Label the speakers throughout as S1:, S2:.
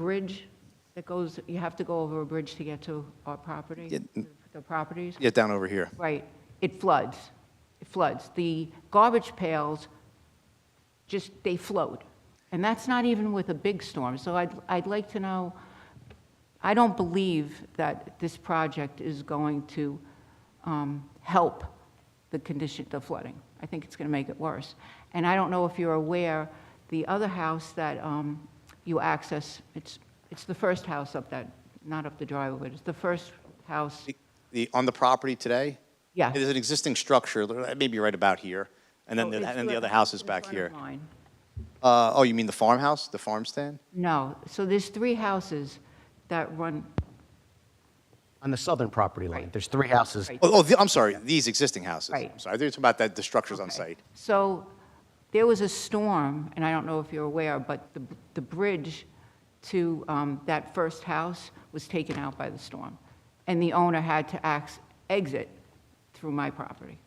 S1: bridge that goes, you have to go over a bridge to get to our
S2: Yeah.
S1: property, the properties?
S2: Yeah, down over here.
S1: Right, it floods, it floods. The garbage pails, just, they float. And that's not even with a big storm, so I'd, I'd like to know, I don't believe that this project is going to um, help the condition, the flooding. I think it's going to make it worse. And I don't know if you're aware, the other house that um, you access, it's, it's the first house up that, not up the driveway, but it's the first house,
S2: The- The, on the property today?
S1: Yeah.
S2: It is an existing structure, li- maybe right about here, and then,
S1: Oh,
S2: the-
S1: it's
S2: and then the
S1: li-
S2: other house is
S1: in
S2: back
S1: front of
S2: here.
S1: mine.
S2: Uh, oh, you mean the farmhouse, the farm stand?
S1: No, so there's three houses that run,
S3: On the southern property line,
S1: Right.
S3: there's three houses.
S1: Right.
S2: Oh, oh, the- I'm sorry, these existing houses.
S1: Right.
S2: I'm sorry, I thought you were talking about that, the structures on
S1: Okay.
S2: site.
S1: So there was a storm, and I don't know if you're aware, but the, the bridge to um, that first house was taken out by the storm, and the owner had to ax, exit through my property.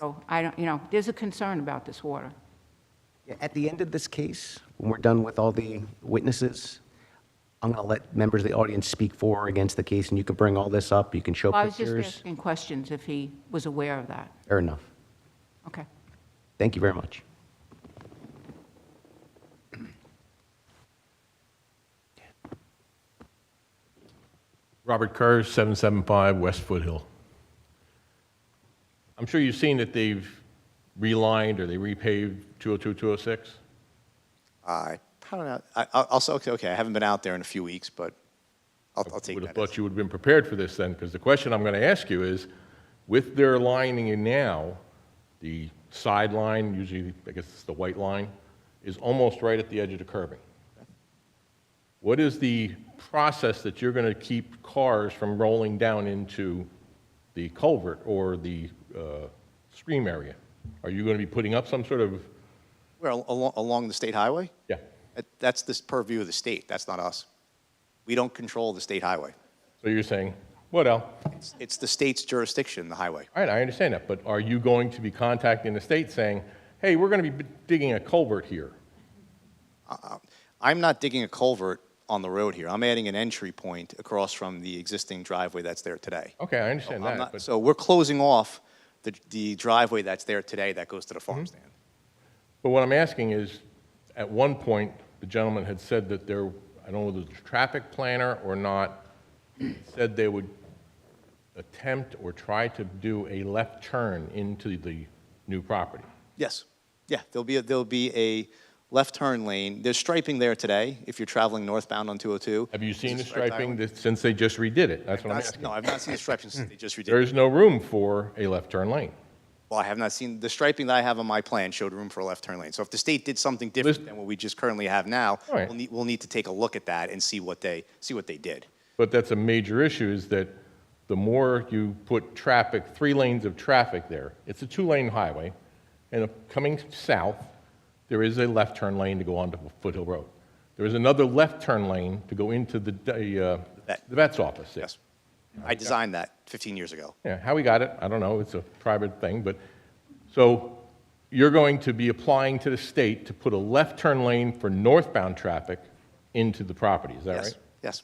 S1: So I don't, you know, there's a concern about this water.
S3: At the end of this case, when we're done with all the witnesses, I'm going to let members of the audience speak for or against the case, and you can bring all this up, you can show
S1: I was just
S3: pictures.
S1: asking questions if he was aware of that.
S3: Fair enough.
S1: Okay.
S3: Thank you very much.
S4: Robert Kerr, 775 West Foothill. I'm sure you've seen that they've relined or they repaved 202, 206?
S2: I, I don't know, I, I'll, I'll say, okay, okay, I haven't been out there in a few weeks, but I'll, I'll take
S4: Would
S2: that.
S4: have
S2: as-
S4: thought you would have been prepared for this then, because the question I'm going to ask you is, with their lining in now, the sideline, usually, I guess it's the white line, is almost right at the edge of the curbing. What is the process that you're going to keep cars from rolling down into the culvert or the uh, stream area? Are you going to be putting up some sort of,
S2: Where, al- along, along the state highway?
S4: yeah,
S2: That- That's this purview of the state, that's not us. We don't control the state highway.
S4: so you're saying, what else?
S2: It's- It's the state's jurisdiction, the highway.
S4: All right, I understand that, but are you going to be contacting the state saying, hey, we're going to be digging a culvert here?
S2: I'm not digging a culvert on the road here. I'm adding an entry point across from the existing driveway that's there today.
S4: Okay, I
S2: So I'm
S4: understand that,
S2: not-
S4: but,
S2: So we're closing off the, the driveway that's there today that goes to the farm
S4: Mm-hmm.
S2: stand.
S4: but what I'm asking is, at one point, the gentleman had said that there, I don't know whether it's a traffic planner or not, said they would attempt or try to do a left turn into the new property.
S2: Yes, yeah, there'll be, a- there'll be a left turn lane. There's striping there today if you're traveling northbound on 202.
S4: Have you seen
S2: There's
S4: the
S2: a striped
S4: striping
S2: highway.
S4: that- since they just redid it? That's what
S2: Not- No,
S4: I'm asking. Hmm.
S2: I've not seen the striping since they just
S4: There
S2: redid. it.
S4: is no room for a left turn lane.
S2: Well, I have not seen, the striping that I have on my plan showed room for a left turn lane. So if the state did something different
S4: Listen-
S2: than what we just currently have now,
S4: All right.
S2: we'll need, we'll need to take a look at that and see what they, see what they did.
S4: But that's a major issue, is that the more you put traffic, three lanes of traffic there, it's a two-lane highway, and coming south, there is a left turn lane to go onto Foothill Road. There is another left turn lane to go into the, the, uh,
S2: vet.
S4: the vet's office there.
S2: Yes. I designed that 15 years ago.
S4: Yeah, how we got it, I don't know, it's a private thing, but, so you're going to be applying to the state to put a left turn lane for northbound traffic into the property, is that
S2: Yes,
S4: right?
S2: Yes.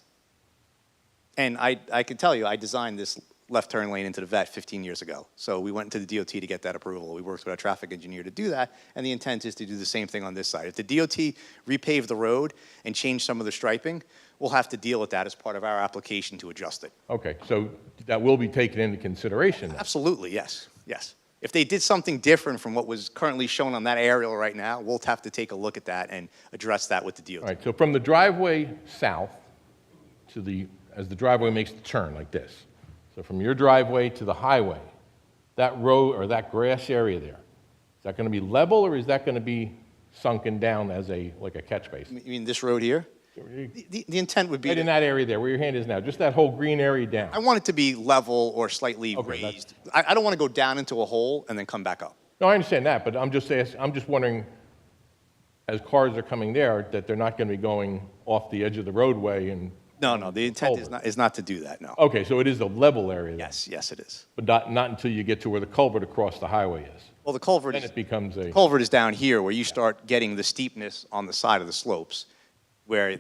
S2: And I, I can tell you, I designed this left turn lane into the vet 15 years ago. So we went to the DOT to get that approval. We worked with our traffic engineer to do that, and the intent is to do the same thing on this side. If the DOT repave the road and change some of the striping, we'll have to deal with that as part of our application to adjust it.
S4: Okay, so that will be taken into consideration then?
S2: Absolutely, yes, yes. If they did something different from what was currently shown on that aerial right now, we'll have to take a look at that and address that with the
S4: All
S2: DOT.
S4: right, so from the driveway south to the, as the driveway makes the turn like this, so from your driveway to the highway, that road or that grass area there, is that going to be level or is that going to be sunken down as a, like a catch basin?
S2: You mean this road here? The- The, the intent would be.
S4: Right in that area there, where your hand is now, just that whole green area
S2: I
S4: down?
S2: want it to be level or slightly
S4: Okay, that's-
S2: raised. I, I don't want to go down into a hole and then come back up.
S4: No, I understand that, but I'm just ask I'm just wondering, as cars are coming there, that they're not going to be going off the edge of the roadway and,
S2: No, no, the intent is
S4: Culvert.
S2: not, is not to do that, no.
S4: okay, so it is a level area there?
S2: Yes, yes, it is.
S4: But not, not until you get to where the culvert across the highway is?
S2: Well, the culvert
S4: Then
S2: is,
S4: it becomes a,
S2: culvert is down here where you start getting the steepness on the side of the slopes. where